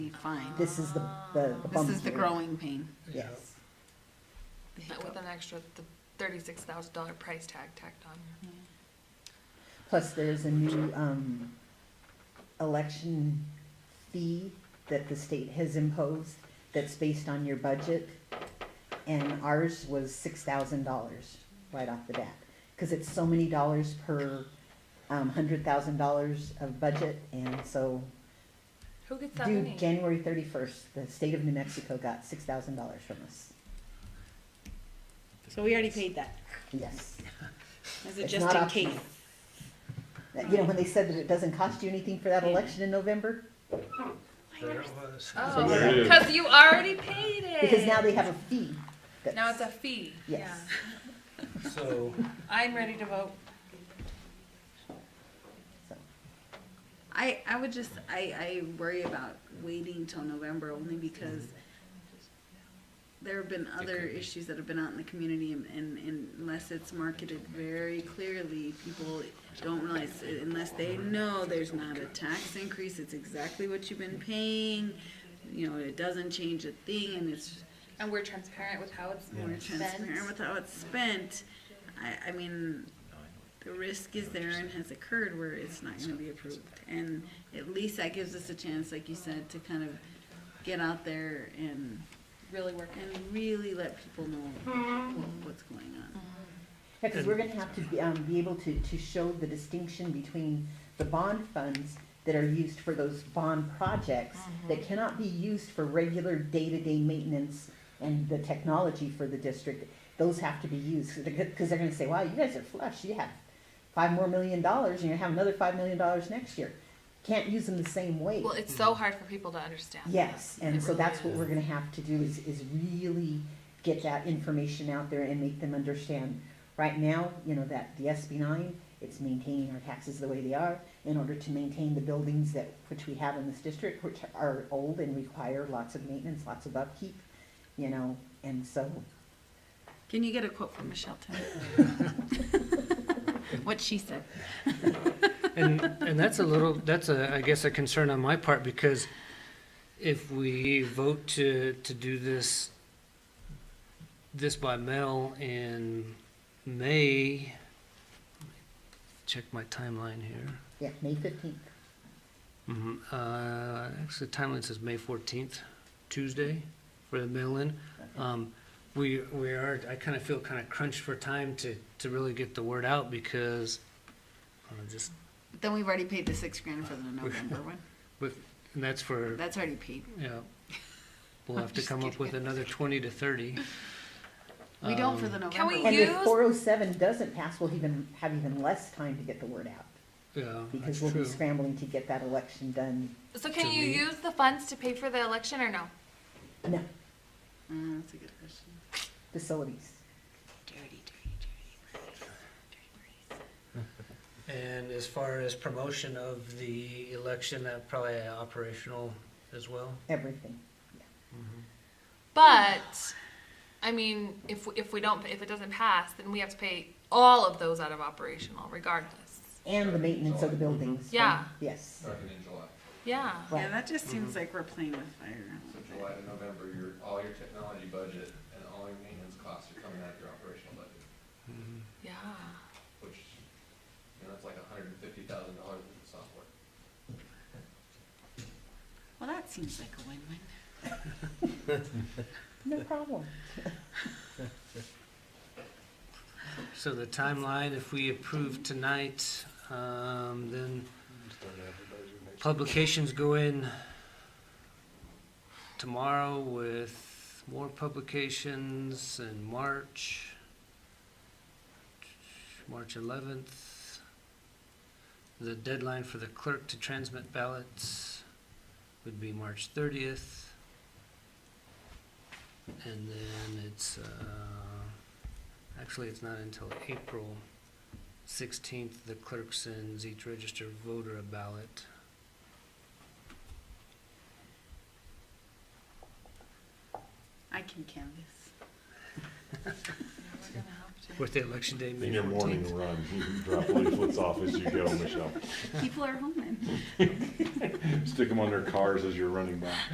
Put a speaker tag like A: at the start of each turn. A: can find.
B: This is the, the the
A: This
B: bump
A: is the
B: here.
A: growing pain.
C: Yeah.
B: Yes.
A: the
D: Not with
A: hiccup.
D: an extra thirty-six thousand dollar price tag tacked on there.
B: Plus, there's a new, um, election fee that the state has imposed that's based on your budget. And ours was six thousand dollars right off the bat, cause it's so many dollars per, um, hundred thousand dollars of budget. And so
D: Who gets that
B: due
D: money?
B: January thirty-first, the state of New Mexico got six thousand dollars from us.
E: So we already paid that.
B: Yes.
E: Is it
B: It's
E: just
B: not
E: in
B: optional.
E: case?
B: That- You know, when they said that it doesn't cost you anything for that election in November,
C: There it was.
D: Oh,
B: There it
F: is.
D: because you already paid it.
B: because now they have a fee. that's-
D: Now it's a fee.
B: Yes.
C: So,
E: I'm ready to vote.
B: So,
A: I, I would just, I, I worry about waiting till November only because there have been other issues that have been out in the community and, and and unless it's marketed very clearly, people don't realize, unless they know there's not a tax increase, it's exactly what you've been paying, you know, it doesn't change a thing and it's
D: And we're transparent with how it's
A: more transparent
D: spent.
A: with how it's spent. I, I mean, the risk is there and has occurred where it's not gonna be approved. And at least that gives us a chance, like you said, to kind of get out there and,
D: Really working.
A: and really let people know
D: Mm-hmm.
A: what- what's going on.
B: Yeah, because we're gonna have to be, um, be able to, to show the distinction between the bond funds that are used for those bond projects that cannot be used for regular day-to-day maintenance and the technology for the district. Those have to be used, because they're gonna say, wow, you guys are flush, you have five more million dollars, and you're gonna have another five million dollars next year. Can't use them the same way.
D: Well, it's so hard for people to understand.
B: Yes, and
D: It
B: so
D: really
B: that's what
D: is.
B: we're gonna have to do is, is really get that information out there and make them understand. Right now, you know, that the SB nine, it's maintaining our taxes the way they are in order to maintain the buildings that, which we have in this district, which are old and require lots of maintenance, lots of upkeep, you know, and so,
A: Can you get a quote from Michelle tonight? What she said.
G: And, and that's a little, that's a, I guess, a concern on my part, because if we vote to, to do this, this by mail in May, check my timeline here.
B: yeah, May fifteenth.
G: Mhm, Uh, actually, the timeline says May fourteenth, Tuesday, for the mail-in.
D: Uh,
G: Um, we, we are, I kind of feel kind of crunched for time to, to really get the word out, because, uh, just,
A: But Then we've already paid the six grand for the November one.
G: with, and that's for.
A: That's already paid.
G: Yeah. We'll have to
A: just
G: come up with another twenty to thirty.
A: We don't for the November.
D: Um, Can we
A: one.
B: And if
D: Use-
B: four oh seven doesn't pass, we'll even, have even less time to get the word out.
G: Yeah, that's
B: Because we'll be
G: true.
B: scrambling to get that election done.
D: So can
G: To
D: you
G: me.
D: use the funds to pay for the election or no?
B: No,
A: Mm, That's a good question.
B: facilities.
A: Dirty, dirty, dirty.
G: And as far as promotion of the election, that probably operational as well?
B: Everything.
D: But, I mean, if, if we don't, if it doesn't pass, then we have to pay all of those out of operational regardless.
B: And the maintenance of the buildings.
D: Yeah.
B: Yes.
F: Starting in July.
D: Yeah.
A: Yeah,
B: Right.
A: that just seems like we're playing with fire.
F: So July to November, your, all your technology budget and all your maintenance costs are coming out of your operational budget,
D: Yeah.
F: which, you know, that's like a hundred and fifty thousand dollars in software.
A: Well, that seems like a win-win.
B: No problem.
G: So the timeline, if we approve tonight, um, then publications go in tomorrow with more publications in March, March eleventh. The deadline for the clerk to transmit ballots would be March thirtieth. And then it's, uh, Actually, it's not until April sixteenth, the clerk sends each registered voter a ballot.
A: I can canvas.
D: Yeah, we're gonna have to.
G: With the election day, May
H: In your morning
G: fourteenth.
H: run, you drop leaflets off as you go, Michelle.
A: People are home then.
H: Stick them on their cars as you're running by.